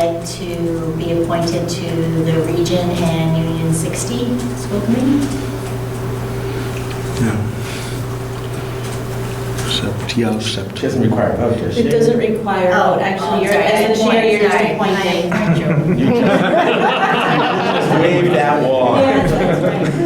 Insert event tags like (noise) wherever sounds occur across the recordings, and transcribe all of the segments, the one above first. to be appointed to the Region and Union 60 School Committee. Yeah. Except, yeah, except. Doesn't require a vote, does it? It doesn't require a vote, actually. You're, Oh, sorry, as the chair, you're just sorry, appointing. (laughs) my- my joke. You just Wave that Oh. wall. Yeah, that's (laughs) right.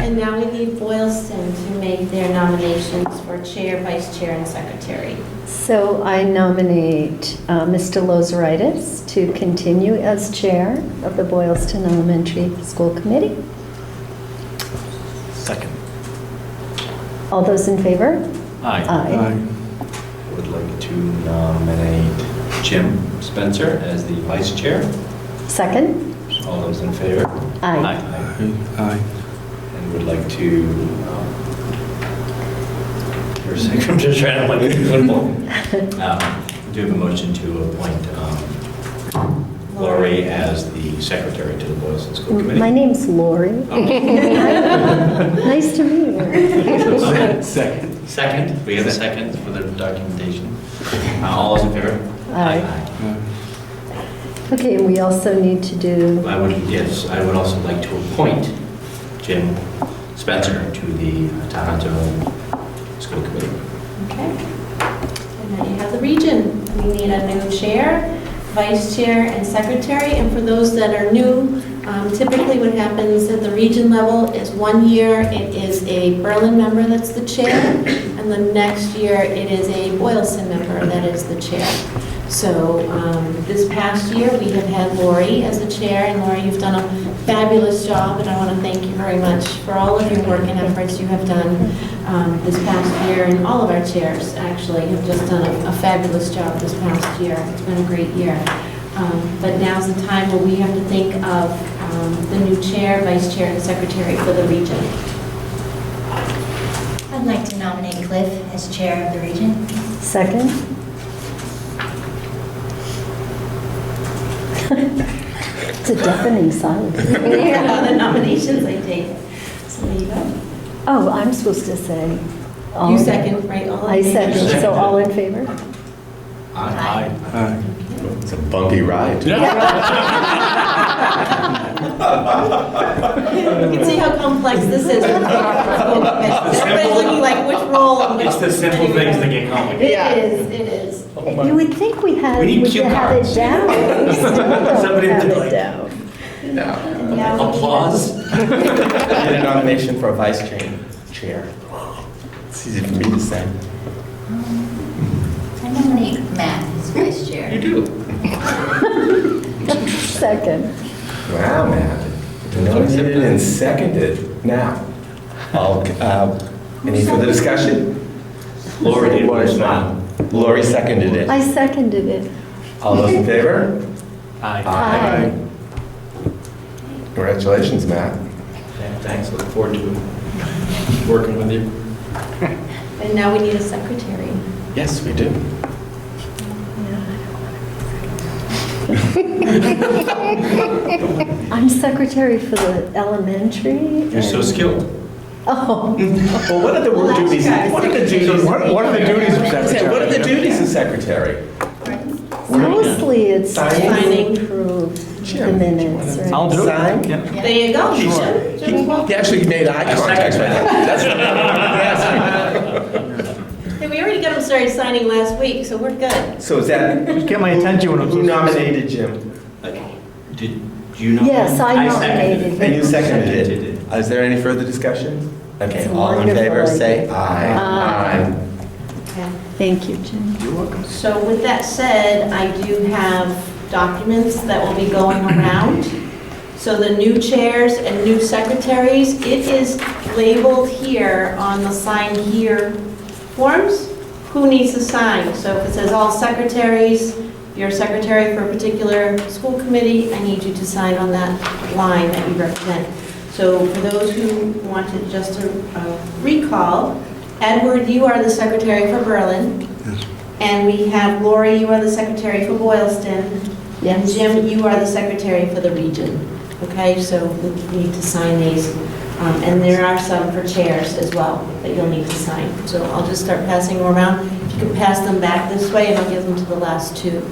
And now we need Boylston to make their nominations for chair, vice chair, and secretary. So I nominate uh, Mr. Lozeritis to continue as chair of the Boylston Elementary School Committee. Second. All those in favor? Aye. Aye. Would like to nominate Jim Spencer as the vice chair. Second? All those in favor? Aye. Aye. Aye. And would like to, um, for a second, (laughs) I'm just trying to like, football. Um, Do have a motion to appoint um, Lori as the secretary to the Boylston School Committee? Mm, Oh. My name's Lori. (laughs) Nice to meet you. Second. Second, we have a second for the documentation. Uh, All those in favor? Aye. Okay, we also need to Aye. do, I would, yes, I would also like to appoint Jim Spencer to the Tohoto School Committee. Okay. And then you have the region. We need a new chair, vice chair, and secretary. And for those that are new, um, typically what happens at the region level is one year it is a Berlin member that's the chair, and the next year it is a Boylston member that is the chair. So um, this past year, we have had Lori as the chair, and Lori, you've done a fabulous job, and I want to thank you very much for all of your work and efforts you have done um, this past year, and all of our chairs, actually, have just done a- a fabulous job this past year. It's been a great year. Um, But now's the time where we have to think of um, the new chair, vice chair, and secretary for the region. I'd like to nominate Cliff as Chair of the Region. (laughs) second? (laughs) It's a deafening silence. There are the nominations I take. So there you go. Oh, I'm supposed to say. all- You second, right? all in Um, I favor? second, so all in favor? Aye. Aye. It's a bumpy ride. You can see how complex this (laughs) is. Everybody's looking like which role and which. It's the simple things that get complicated. It is, it is. You would think we had, We need we cue could have cards. it (laughs) down. We still don't Somebody have to it like- down. Yeah, we- Applause. I need a nomination for a vice chair. Chair. It's easy for me to say. I nominate Matt as Vice Chair. do. Second. Wow, man. Nominated and seconded. Now, I'll, uh, any further discussion? Lori did. Lori's not. Lori seconded it. I seconded it. All those in favor? Aye. Aye. Congratulations, Matt. Yeah, Thanks, look forward to working with you. And now we need a secretary. Yes, we do. I'm secretary for the elementary. You're so and- skilled. Oh, Well, what are the Well, work duties? that's What are the good. duties? What what are the duties of secretary? What are the duties of secretary? mostly it's Signing. to approve Sure. the minutes, I'll right? do it. Yeah. There you go. Sure. Jim, Jim, well, He actually made eye I contact second with that. him. That's what I'm Hey, we already got him started signing last week, so we're good. asking. So is that, Get my attention when I'm. who nominated Jim? Did you know? Yes, I seconded nominated it. And you him. seconded Seconded (laughs) it. Is there any further discussion? Okay, It's a all in wonderful favor, say idea. aye. Aye. Aye. Thank you, Jim. So with that said, I do have documents that will be going around. So the new chairs and new secretaries, it is labeled here on the sign here forms, who needs to sign. So if it says all secretaries, you're a secretary for a particular school committee, I need you to sign on that line that you represent. So for those who wanted just to uh, recall, Edward, you are the secretary for Berlin. Yes. And we have Lori, you are the secretary for Boylston. And Yes. Jim, you are the secretary for the region. Okay, so we need to sign these. Um, And there are some for chairs as well that you'll need to sign. So I'll just start passing them around. If you can pass them back this way, and I'll give them to the last two.